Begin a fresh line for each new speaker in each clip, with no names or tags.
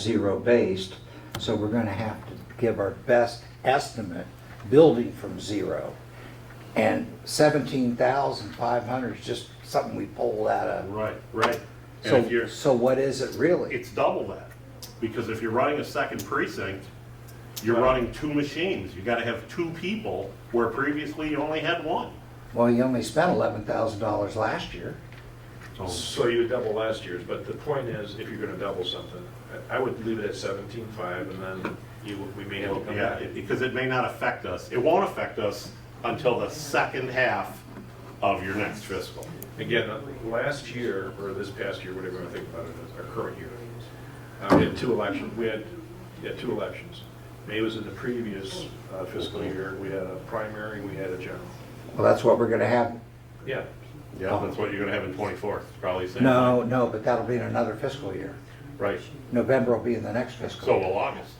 zero based, so we're gonna have to give our best estimate, building from zero. And seventeen thousand five hundred is just something we pulled out of.
Right, right. And if
So,
you're,
so what is it really?
it's double that, because if you're running a second precinct, you're running two machines. You gotta have two people where previously you only had one.
Well, you only spent eleven thousand dollars last year.
So you would double last year's, but the point is, if you're gonna double something, I I would leave it at seventeen-five, and then you, we may have to come
Yeah,
back.
it- because it may not affect us. It won't affect us until the second half of your next fiscal.
Again, last year, or this past year, whatever you wanna think about it, our current year, uh, we had two elections, we had, yeah, two elections. May was in the previous uh, fiscal year, we had a primary, we had a general.
Well, that's what we're gonna have.
Yeah,
Yeah, that's what you're gonna have in twenty-four, probably the same.
No, no, but that'll be in another fiscal year.
Right,
November will be in the next fiscal.
so
year.
will August.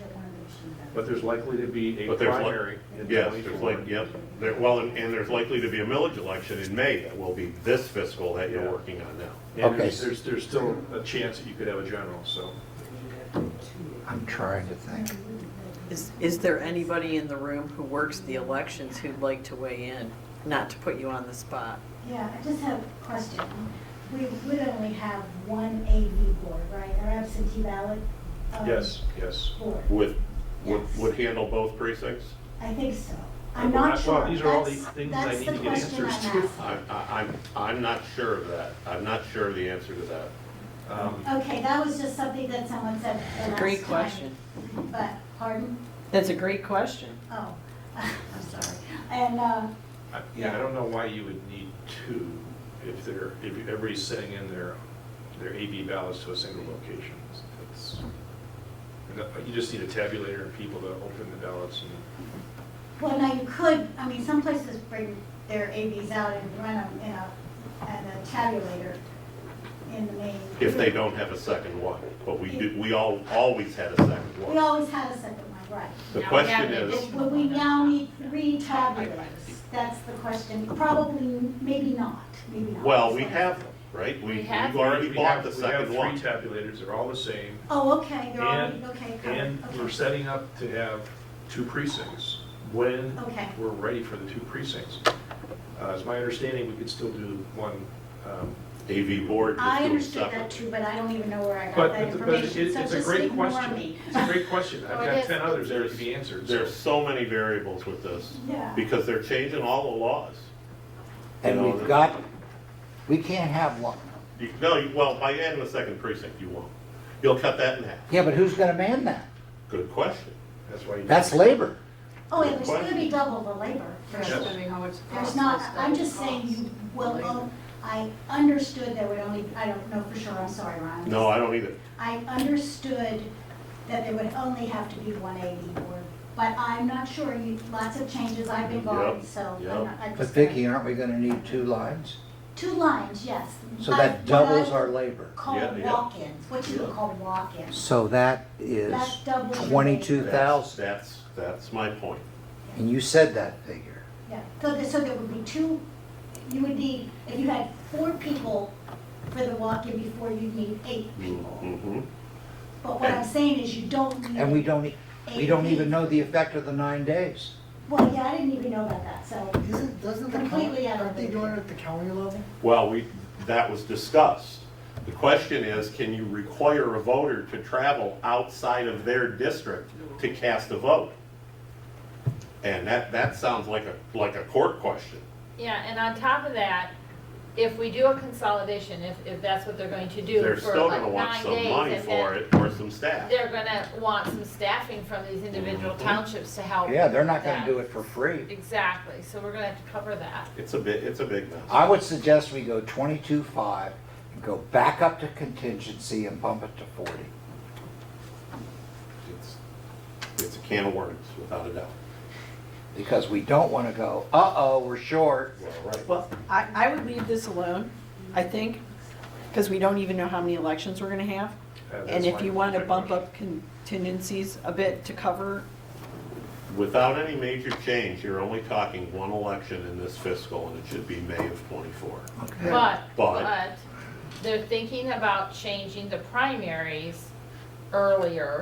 but there's likely to be a
But there's like,
primary in
yes, there's
twenty-four.
like, yep, there, well, and and there's likely to be a millage election in May that will be this fiscal that you're working on now.
And
Okay.
there's, there's- there's still a chance that you could have a general, so.
I'm trying to think.
Is, is there anybody in the room who works the elections who'd like to weigh in? Not to put you on the spot.
Yeah, I just have a question. We would only have one AV board, right, or absentee ballot? um,
Yes, yes.
Board,
Would, would, would handle both precincts?
I think so. I'm not
Well,
sure.
These are all the
That's-
things I
that's
need
the
to get
question
answers
I'm
to.
asking.
I, I, I'm, I'm not sure of that. I'm not sure of the answer to that.
Um,
Okay, that was just something that someone said the last time.
Great question.
But, pardon?
That's a great question.
Oh, I'm sorry. And, uh,
I- Yeah, I don't know why you would need two if they're, if everybody's sending in their, their AB ballots to a single location. That's- and You just need a tabulator and people to open the ballots and,
well, now you could, I mean, some places bring their AVs out and run them in a, at a tabulator in the main.
If they don't have a second one, but we do, we all, always had a second
We
one.
always had a second one, right.
The
Now we
question
have an
is,
addition-
But we now need three tabulators. That's the question. Probably, maybe not, maybe not.
well, we have, them, right? We,
We
we've
have
already
We
bought
have-
the second one.
We have three tabulators, they're all the same,
Oh, okay, you're already,
And-
okay, covered,
and we're
okay.
setting up to have two precincts when
Okay.
we're ready for the two precincts. Uh, It's my understanding we could still do one, um,
AV board is
I
doing
understood that
separate.
too, but I don't even know where I got
But,
that
but- but it-
information, so
it's a
just
great
ignore
question.
me.
It's a great question.
Oh,
I've
it
got
is.
ten others that
There's-
could be answered. so-
There's so many variables with this,
Yeah.
because they're changing all the laws.
And we've got, we can't have one.
You, no, you- well, by adding a second precinct, you won't. You'll cut that in half.
Yeah, but who's gonna man that?
Good question.
That's why you.
That's labor.
Oh, yeah, there's gonna be double the labor. for sure.
Yes.
how much it
There's
costs,
not,
that's
I'm
what
just
it
saying,
costs.
you well, oh, I understood there would only, I don't know for sure, I'm sorry, Ron.
No, I don't either.
I understood that there would only have to be one AV board, but I'm not sure, you, lots of changes, I've been gone,
Yep,
so. I'm
yep.
not- I
But
just-
Vicki, aren't we gonna need two lines?
Two lines, yes.
So
I-
that
what I
doubles our labor.
Yeah,
Call
yeah.
walk-ins, what you would call walk-ins.
So that is
That's double your
twenty-two
That's-
thousand.
That's, that's my point.
And you said that figure.
Yeah, so there, so there would be two, you would need, if you had four people for the walk-in before, you'd need eight people.
Mhm.
But what I'm saying is you don't need.
And we don't, e- we don't even know the effect of the nine days.
Well, yeah, I didn't even know about that, so.
Isn't, doesn't the
Completely
county,
out of
aren't they
the-
doing it at the county level?
Well, we, that was discussed. The question is, can you require a voter to travel outside of their district to cast a vote? And that, that sounds like a, like a court question.
Yeah, and on top of that, if we do a consolidation, if, if that's what they're going to do
They're
for
still
like
gonna want
nine
some money
days, and
for
then
it, or some staff.
they're gonna want some staffing from these individual
Mm-hmm.
townships to help.
Yeah, they're not gonna do it for free.
Exactly, so we're gonna have to cover that.
It's a bit, it's a big mess.
I would suggest we go twenty-two five, go back up to contingency and bump it to forty.
It's, it's a can of worms, without a doubt.
Because we don't wanna go, uh-oh, we're short.
Well, right.
Well, I, I would leave this alone, I think, because we don't even know how many elections we're gonna have.
Uh, that's
And if
my
you want to
second
bump
question.
up contingencies a bit to cover,
Without any major change, you're only talking one election in this fiscal, and it should be May of twenty-four.
But,
But-
but, they're thinking about changing the primaries earlier,